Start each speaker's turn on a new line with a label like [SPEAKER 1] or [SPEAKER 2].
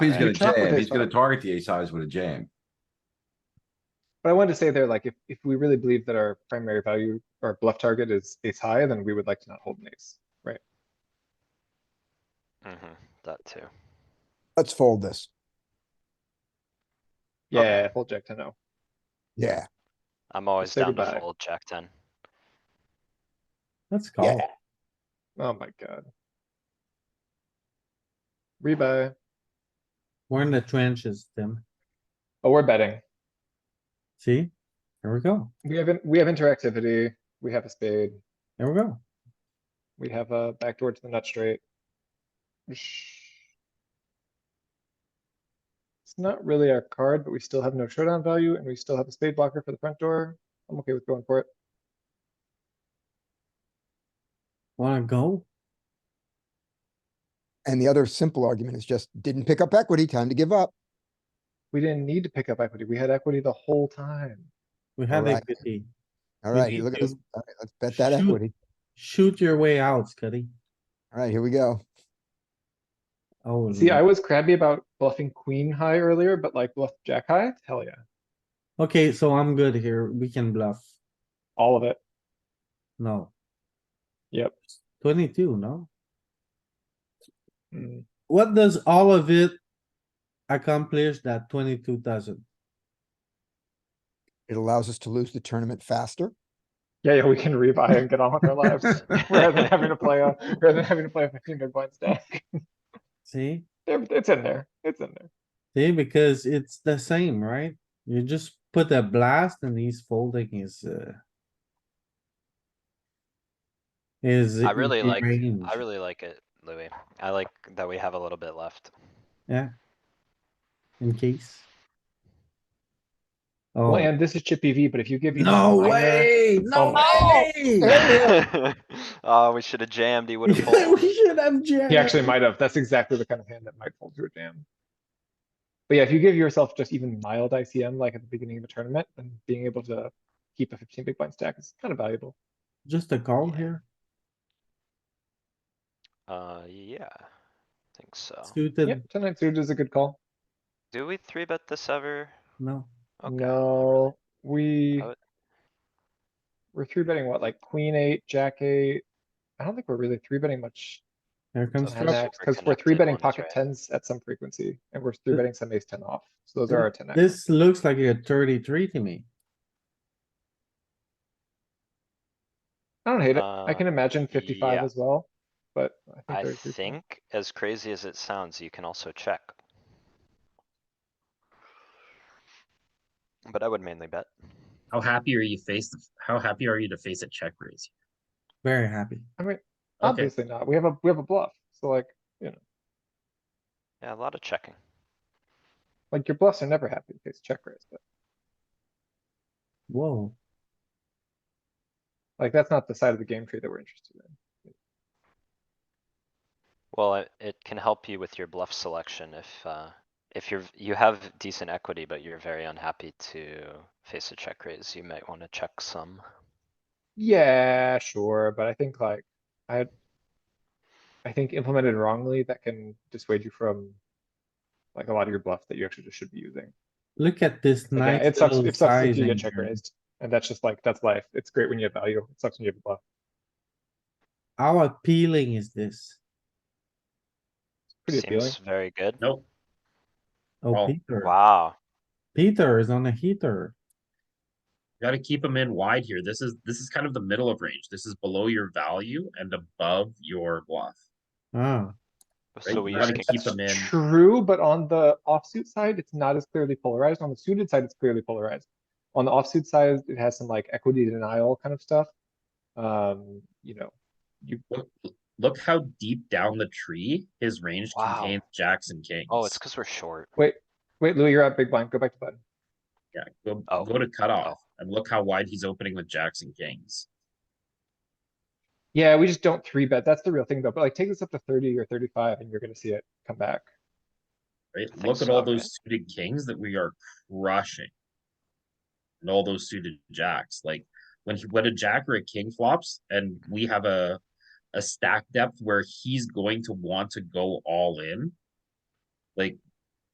[SPEAKER 1] He's gonna
[SPEAKER 2] You can't with
[SPEAKER 1] jam, he's
[SPEAKER 2] ace-high.
[SPEAKER 1] gonna target the ace highs with a jam.
[SPEAKER 2] But I wanted to say there, like, if, if we really believe that our primary value, our bluff target is ace high, then we would like to not hold an ace.
[SPEAKER 3] Mm-hmm, that too.
[SPEAKER 4] Let's fold this.
[SPEAKER 3] Okay.
[SPEAKER 2] Yeah, full jack ten O.
[SPEAKER 4] Yeah,
[SPEAKER 3] I'm always
[SPEAKER 2] say
[SPEAKER 3] down to
[SPEAKER 2] goodbye.
[SPEAKER 3] fold check ten.
[SPEAKER 5] Let's
[SPEAKER 4] yeah.
[SPEAKER 5] call.
[SPEAKER 2] Oh my god. Rebuy.
[SPEAKER 5] We're in the trenches, Tim.
[SPEAKER 2] Oh, we're betting.
[SPEAKER 5] See? Here we go.
[SPEAKER 2] We have, in- we have interactivity. We have a spade.
[SPEAKER 5] Here we go.
[SPEAKER 2] We have a backdoor to the nut straight. Sh- It's not really our card, but we still have no showdown value and we still have a spade blocker for the front door. I'm okay with going for it.
[SPEAKER 5] Wanna go?
[SPEAKER 4] And the other simple argument is just didn't pick up equity, time to give up.
[SPEAKER 2] We didn't need to pick up equity. We had equity the whole time.
[SPEAKER 5] We have
[SPEAKER 4] Alright.
[SPEAKER 5] equity.
[SPEAKER 4] All
[SPEAKER 5] We
[SPEAKER 4] right,
[SPEAKER 5] need
[SPEAKER 4] you look at
[SPEAKER 5] to
[SPEAKER 4] this. All right, Let's bet that
[SPEAKER 5] shoot.
[SPEAKER 4] equity.
[SPEAKER 5] Shoot your way out, Scotty.
[SPEAKER 4] All right, here we go.
[SPEAKER 5] Oh.
[SPEAKER 2] See, I
[SPEAKER 5] no.
[SPEAKER 2] was crabby about bluffing queen high earlier, but like bluff jack high, hell yeah,
[SPEAKER 5] Okay, so I'm good here. We can bluff.
[SPEAKER 2] all of it.
[SPEAKER 5] No.
[SPEAKER 2] Yep.
[SPEAKER 5] Twenty-two, no?
[SPEAKER 2] Mm.
[SPEAKER 5] What does all of it accomplish that twenty-two doesn't?
[SPEAKER 4] It allows us to lose the tournament faster.
[SPEAKER 2] Yeah, yeah, we can rebuy and get on with our lives rather than having to play a rather than having to play a fifteen big blind stack.
[SPEAKER 5] See?
[SPEAKER 2] There- It's in there. It's in there.
[SPEAKER 5] See, because it's the same, right? You just put a blast and he's folding his, uh. Is.
[SPEAKER 3] I really like, I really like it, Louis. I like that we have a little bit left.
[SPEAKER 5] In case.
[SPEAKER 2] Well,
[SPEAKER 5] Oh,
[SPEAKER 2] and this is chippy V, but if you give even
[SPEAKER 5] no
[SPEAKER 2] minor-
[SPEAKER 5] way,
[SPEAKER 2] Oh
[SPEAKER 5] no
[SPEAKER 2] my
[SPEAKER 5] way!
[SPEAKER 3] Oh, we should have jammed, he would have
[SPEAKER 5] We
[SPEAKER 3] folded.
[SPEAKER 5] should have jammed.
[SPEAKER 2] He actually might have. That's exactly the kind of hand that might fold to a jam. But yeah, if you give yourself just even mild ICM like at the beginning of a tournament, then being able to keep a fifteen big blind stack is kind of valuable.
[SPEAKER 5] Just a call here,
[SPEAKER 3] Uh, yeah, I think so.
[SPEAKER 5] suited,
[SPEAKER 2] Yep, ten nine suited is a good call.
[SPEAKER 3] Do we three bet this ever?
[SPEAKER 5] no,
[SPEAKER 3] Okay, not really.
[SPEAKER 2] No, we.
[SPEAKER 3] I would-
[SPEAKER 2] We're three betting what, like queen eight, jack eight? I don't think we're really three betting much
[SPEAKER 5] here comes
[SPEAKER 2] on
[SPEAKER 3] Construct-
[SPEAKER 5] trouble.
[SPEAKER 2] that, cuz we're three betting
[SPEAKER 3] Superconnected ones,
[SPEAKER 2] pocket
[SPEAKER 3] right?
[SPEAKER 2] tens at some frequency, and we're three
[SPEAKER 5] Th-
[SPEAKER 2] betting some ace ten off, so those are our ten X.
[SPEAKER 5] This looks like a thirty-three to me.
[SPEAKER 2] I don't hate it, I can
[SPEAKER 3] Uh,
[SPEAKER 2] imagine fifty-five
[SPEAKER 3] yeah.
[SPEAKER 2] as well, but I
[SPEAKER 3] I
[SPEAKER 2] think they're.
[SPEAKER 3] think, as crazy as it sounds, you can also check. But I would mainly bet.
[SPEAKER 6] How happy are you face? How happy are you to face a check raise?
[SPEAKER 5] Very happy.
[SPEAKER 2] I mean,
[SPEAKER 6] Okay,
[SPEAKER 2] obviously not, we have a, we have a bluff, so like,
[SPEAKER 3] Yeah, a lot of checking.
[SPEAKER 2] like your bluffs are never happy, it's check raise, but
[SPEAKER 5] Whoa,
[SPEAKER 2] like, that's not the side of the game tree that we're interested in.
[SPEAKER 3] Well, it, it can help you with your bluff selection if, uh, if you're, you have decent equity, but you're very unhappy to face a check raise, you might wanna check some.
[SPEAKER 2] Yeah, sure, but I think like, I. I think implemented wrongly, that can dissuade you from. Like a lot of your bluff that you actually just should be using.
[SPEAKER 5] look at this
[SPEAKER 2] Like, yeah,
[SPEAKER 5] nice
[SPEAKER 2] It sucks,
[SPEAKER 5] little
[SPEAKER 2] it sucks if you
[SPEAKER 5] sizing.
[SPEAKER 2] get check
[SPEAKER 5] here.
[SPEAKER 2] raised, and that's just like, that's life, it's great when you have value, it sucks when you have a bluff,
[SPEAKER 5] How appealing is this?
[SPEAKER 2] pretty appealing.
[SPEAKER 3] Seems very good.
[SPEAKER 6] nope.
[SPEAKER 5] Oh,
[SPEAKER 6] Oh,
[SPEAKER 5] Peter,
[SPEAKER 3] Wow,
[SPEAKER 5] Peter is on a heater.
[SPEAKER 6] Got to keep them in wide here. This is this is kind of the middle of range. This is below your value and above your bluff.
[SPEAKER 5] Ah,
[SPEAKER 6] Right?
[SPEAKER 3] so we
[SPEAKER 6] you
[SPEAKER 3] use
[SPEAKER 6] got to
[SPEAKER 3] king
[SPEAKER 6] keep
[SPEAKER 3] s-
[SPEAKER 6] them in.
[SPEAKER 2] True, but on the offsuit side, it's not as clearly polarized. On the suited side, it's clearly polarized. On the offsuit side, it has some like equity denial kind of stuff. Um, you know,
[SPEAKER 6] Look, look how deep down the tree his range
[SPEAKER 3] Wow.
[SPEAKER 6] contains jacks and kings.
[SPEAKER 3] Oh, it's cuz we're short.
[SPEAKER 2] wait, Louis, you're up big blind. Go back to button.
[SPEAKER 6] yeah. Go,
[SPEAKER 3] Oh.
[SPEAKER 6] go to cutoff and look how wide he's opening with jacks and kings.
[SPEAKER 2] Yeah, we just don't three bet. That's the real thing though. But like take this up to thirty or thirty-five and you're gonna see it come back.
[SPEAKER 6] Right?
[SPEAKER 3] think
[SPEAKER 6] Look at
[SPEAKER 3] so,
[SPEAKER 6] all those suited kings that we are crushing. And all those suited jacks, like when he, when a jack or a king flops and we have a, a stack depth where he's going to want to go all in. Like